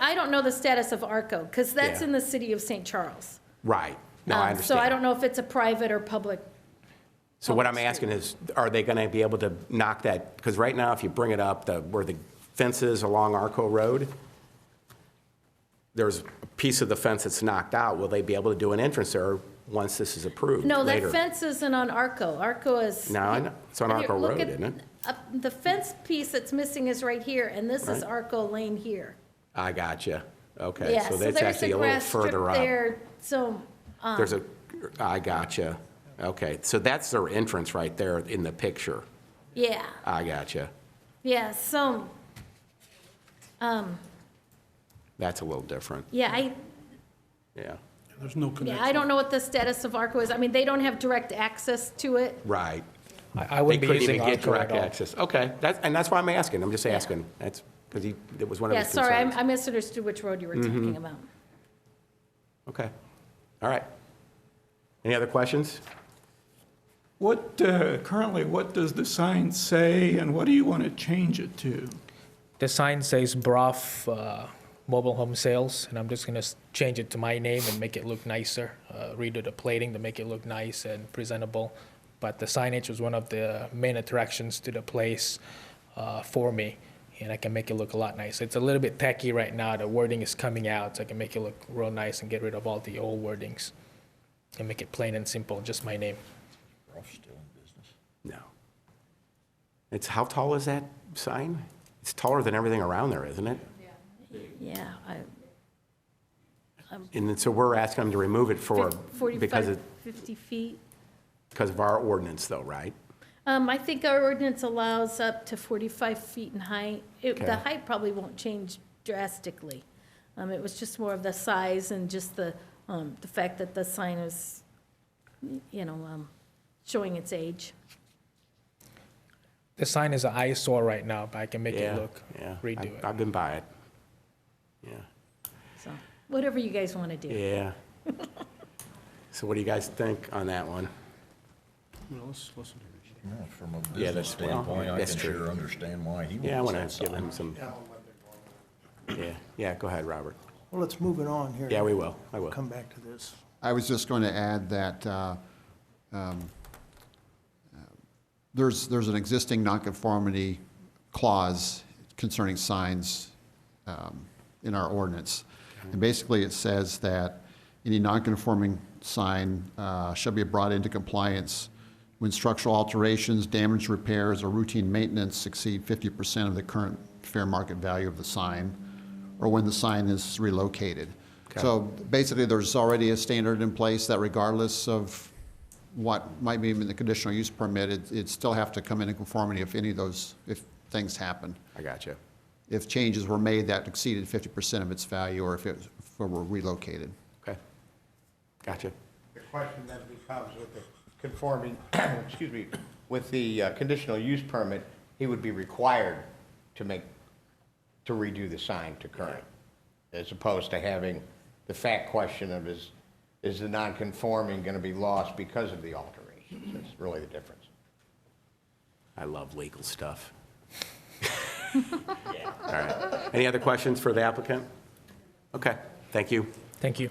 I don't know the status of ARCO, because that's Yeah. in the city of St. Charles. Right. No, I Um, So I don't understand. know if it's a private or public. So what I'm public asking is, are they going to be able to knock that? Because right now, if you bring it up, the, where the fence is along Arco Road, there's a piece of the fence that's knocked out. Will they be able to do an entrance there once this is approved No, that later? fence isn't on ARCO. ARCO is. No, I know. It's on Here, Arco look Road, at- isn't it? up- The fence piece that's missing is right here, and this is Right. ARCO Lane here. I gotcha. Okay, Yeah, so so that's there's actually the a little grass strip further up. there, so, um, There's a, I gotcha. Okay, so that's their entrance right there in the picture. yeah, I gotcha. yeah, so, That's a little different, yeah, I, yeah. There's no yeah, connection. I don't know what the status of ARCO is. I mean, they don't have direct access to it. Right. I I They wouldn't be couldn't even using get Encore direct at all. access. Okay, that's, and that's why I'm asking, I'm just asking. That's, because he, it was one of Yeah, his sorry, I concerns. I misunderstood which road you were Mm-hmm. talking about. Okay, all right. Any other questions? What, uh, currently, what does the sign say, and what do you want to change it to? The sign says Broth uh, Mobile Home Sales, and I'm just gonna s- change it to my name and make it look nicer. Uh, Redo the plating to make it look nice and presentable. But the signage was one of the main attractions to the place uh, for me, and I can make it look a lot nicer. It's a little bit tacky right now. The wording is coming out, so I can make it look real nice and get rid of all the old wordings and make it plain and simple, just my name. No. It's, how tall is that sign? It's taller than everything around there, isn't it? Yeah, I- And then- so we're asking them to remove it for, because 45, of, 50 feet. because of our ordinance though, right? Um, I think our ordinance allows up to 45 feet in height. It- Okay. The height probably won't change drastically. Um, It was just more of the size and just the, um, the fact that the sign is, you know, um, showing its age. The sign is an eyesore right now, but I can make it Yeah, look, yeah. redo I- it. I've been by it. Yeah. So whatever you guys want to do. Yeah. So what do you guys think on that one? Yeah, From a Yeah, business that's- well, standpoint, I that's can true. sure understand why he Yeah, I wants want that to give him sign. some. Yeah, yeah, go ahead, Robert. Well, let's move it on here. Yeah, we will, I will. Come back to this. I was just going to add that uh, um, uh, there's, there's an existing nonconformity clause concerning signs um, in our ordinance. And basically, it says that any nonconforming sign uh, shall be brought into compliance when structural alterations, damage repairs, or routine maintenance exceed 50% of the current fair market value of the sign, or when the sign is relocated. So basically, there's already a standard in place that regardless of what might be in the conditional use permit, it- it'd still have to come into conformity if any of those, if things happen. I got you. If changes were made that exceeded 50% of its value, or if it if it were relocated. Okay. Gotcha. The question then becomes with the conforming, excuse me, with the uh, conditional use permit, he would be required to make, to redo the sign to current, as opposed to having the fact question of is, is the non-conforming going to be lost because of the alterations? That's really the difference. I love legal stuff. All right. Any other questions for the applicant? Okay, thank you. Thank you.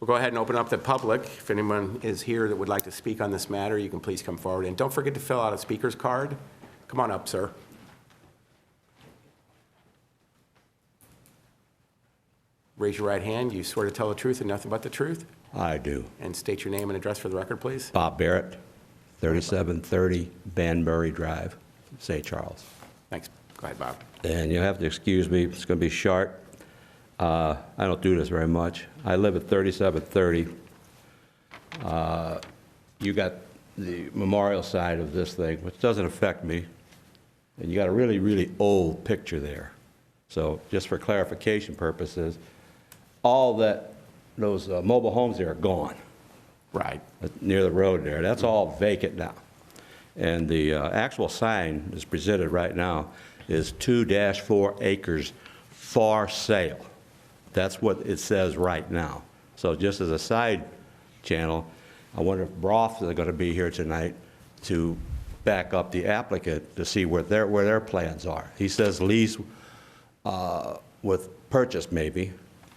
We'll go ahead and open up the public. If anyone is here that would like to speak on this matter, you can please come forward. And don't forget to fill out a speaker's card. Come on up, sir. Raise your right hand. You swear to tell the truth and nothing but the truth? I do. And state your name and address for the record, please. Bob Barrett, 3730 Van Murray Drive, St. Charles. Thanks. Go ahead, Bob. And you'll have to excuse me, it's going to be short. Uh, I don't do this very much. I live at 3730. Uh, You got the memorial side of this thing, which doesn't affect me, and you got a really, really old picture there. So just for clarification purposes, all that, those uh, mobile homes there are gone. Right. near the road there. That's all vacant now. And the uh, actual sign that's presented right now is 2-4 acres for sale. That's what it says right now. So just as a side channel, I wonder if Broth is going to be here tonight to back up the applicant to see where their, where their plans are. He says lease uh, with purchased maybe,